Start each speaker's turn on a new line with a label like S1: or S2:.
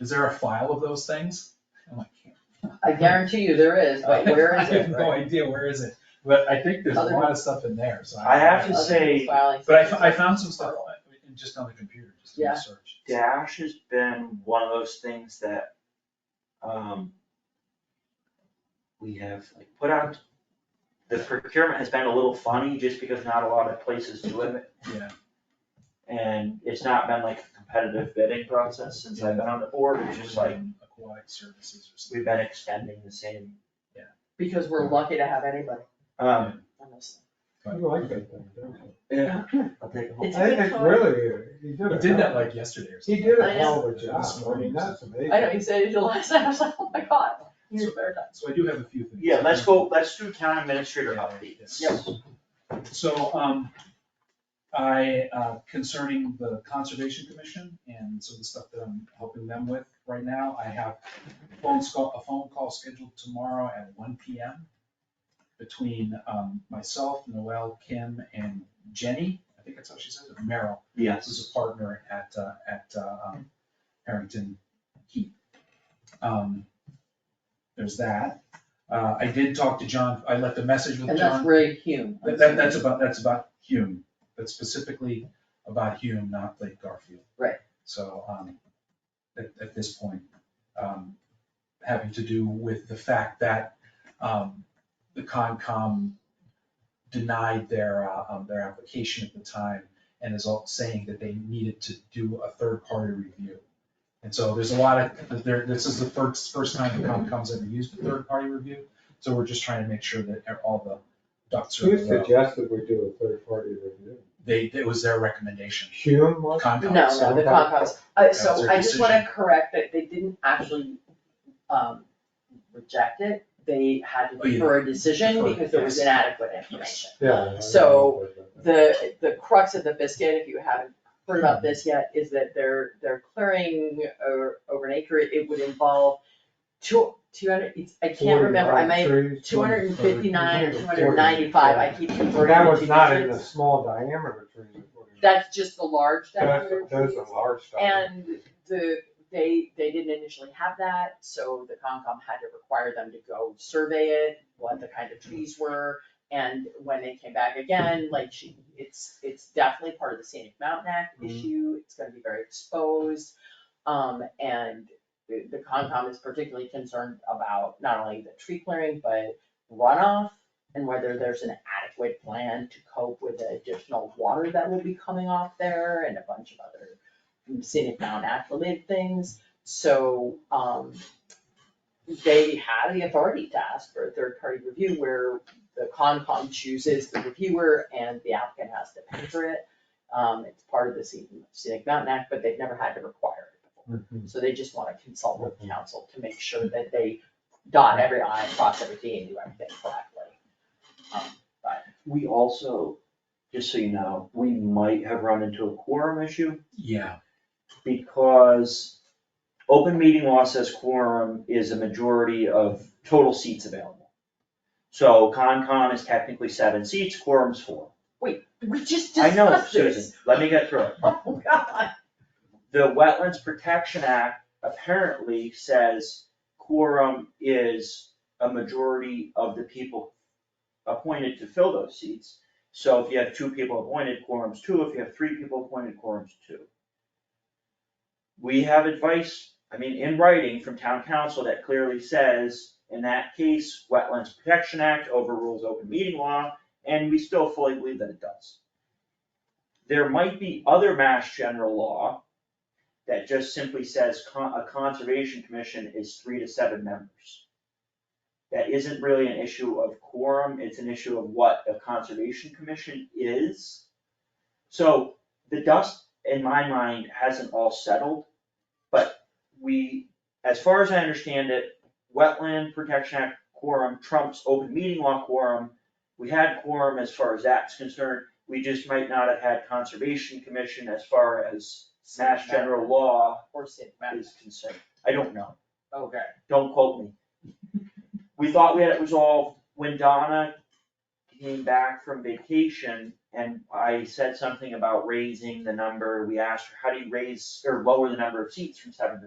S1: is there a file of those things? I'm like,
S2: I guarantee you there is, but where is
S1: I have
S2: it?
S1: no idea, where is it? But I think there's a
S2: Other
S1: lot of stuff in there, so.
S3: I have to
S2: Other
S3: say-
S2: people's filings.
S1: But I, fo- I found some stuff on it, and just on the computer, just in
S2: Yeah.
S1: the search.
S3: Dash has been one of those things that, um, we have like put out, the procurement has been a little funny just because not a lot of places do it.
S1: Yeah.
S3: And it's not been like a competitive bidding process since I've been on the board, it's just like,
S1: Aquatic services or something.
S3: we've been extending the same.
S2: Because we're lucky to have anybody,
S3: Um,
S2: honestly.
S4: I like that thing, don't you?
S3: yeah, I'll take a whole.
S4: It's
S5: It's a good call.
S4: really, he did a.
S1: He did that
S4: hell-
S1: like yesterday or
S4: He
S1: something.
S4: did a
S5: I
S4: hell of a job,
S1: This
S4: I mean,
S1: morning.
S4: that's amazing.
S2: I know, you said it the last time, I was like, oh my god, you're very nice.
S1: So I do have a few things.
S3: Yeah, let's go, let's do town administrator updates.
S1: Yes. So, um, I, uh, concerning the Conservation Commission and so the stuff that I'm helping them with right now, I have phone call, a phone call scheduled tomorrow at one P M between, um, myself, Noel, Kim, and Jenny, I think that's how she says it, Merrill, who's a partner at, uh, at, uh, um, Harrington Heat. Um, there's that. Uh, I did talk to John, I left a message with
S2: And that's
S1: John.
S2: Ray Hume.
S1: That, that- that's about, that's about Hume, that's specifically about Hume, not Lake Garfield.
S2: Right.
S1: So, um, at, at this point, um, having to do with the fact that, um, the Concom denied their, uh, um, their application at the time and is all saying that they needed to do a third-party review. And so there's a lot of, there, this is the first, first time the Concom's ever used a third-party review, so we're just trying to make sure that e, all the ducks are
S4: Who
S1: in a row.
S4: suggested we do a third party review?
S1: They, it was their recommendation.
S4: Hume, was-
S1: Concom.
S2: No, no,
S1: so-
S2: the Concom's, uh,
S1: That's
S2: so
S1: their
S2: I just wanna correct that they didn't actually, um, reject it. They had to
S1: Oh, yeah.
S2: defer a decision
S1: Defer,
S2: because there was
S1: yes.
S2: inadequate information.
S4: yeah. I
S2: So,
S4: remember that.
S2: the, the crux of the biscuit, if you haven't heard about this yet, is that they're, they're clearing over, over an acre, it would involve two, two hundred, it's, I can't remember, I may,
S4: 45 trees,
S2: two hundred and fifty-nine or two
S4: 40.
S2: hundred and ninety-five, I keep converting
S4: Well, That was
S2: to
S4: not in the
S2: digits.
S4: small diameter trees. that were-
S2: That's just the large
S4: That's,
S2: diameter
S4: that's
S2: trees.
S4: a large stuff.
S2: And the, they, they didn't initially have that, so the Concom had to require them to go survey it, what the kind of trees were. And when they came back again, like she, it's, it's definitely part of the scenic mountain act
S4: Mhm.
S2: issue, it's gonna be very exposed. Um, and the, the Concom is particularly concerned about not only the tree clearing, but runoff. And whether there's an adequate plan to cope with the additional water that will be coming off there and a bunch of other scenic Mountain Act related things, so, um, they had the authority to ask for a third party review where the Concom chooses the reviewer and the applicant has to pay for it. Um, it's part of the scenic, scenic mountain act, but they've never had to require it before,
S4: Mhm.
S2: so they just wanna consult with council to make sure that they dot every i, cross every t, and do everything correctly. Um,
S3: We also, just so you know, we might have run into a quorum issue
S1: Yeah,
S3: because open meeting law says quorum is a majority of total seats available. So Concom is technically seven seats, quorum's four.
S2: We just
S3: I know,
S2: discussed
S3: Susan,
S2: this.
S3: let me get through it.
S2: Oh, God.
S3: The Wetlands Protection Act apparently says quorum is a majority of the people appointed to fill those seats. So if you have two people appointed, quorum's two, if you have three people appointed, quorum's two. We have advice, I mean, in writing from town council that clearly says, in that case, Wetlands Protection Act overrules open meeting law, and we still fully believe that it does. There might be other mass general law that just simply says con- a conservation commission is three to seven members. That isn't really an issue of quorum, it's an issue of what a conservation commission is. So the dust, in my mind, hasn't all settled, but we, as far as I understand it, Wetland Protection Act quorum trumps open meeting law quorum. We had quorum as far as that's concerned, we just might not have had conservation commission as far as Mass general law
S2: Or scenic mountain,
S3: is concerned. I don't know.
S2: okay.
S3: Don't quote me. We thought we had it resolved when Donna came back from vacation and I said something about raising the number. We asked her, how do you raise or lower the number of seats from seven to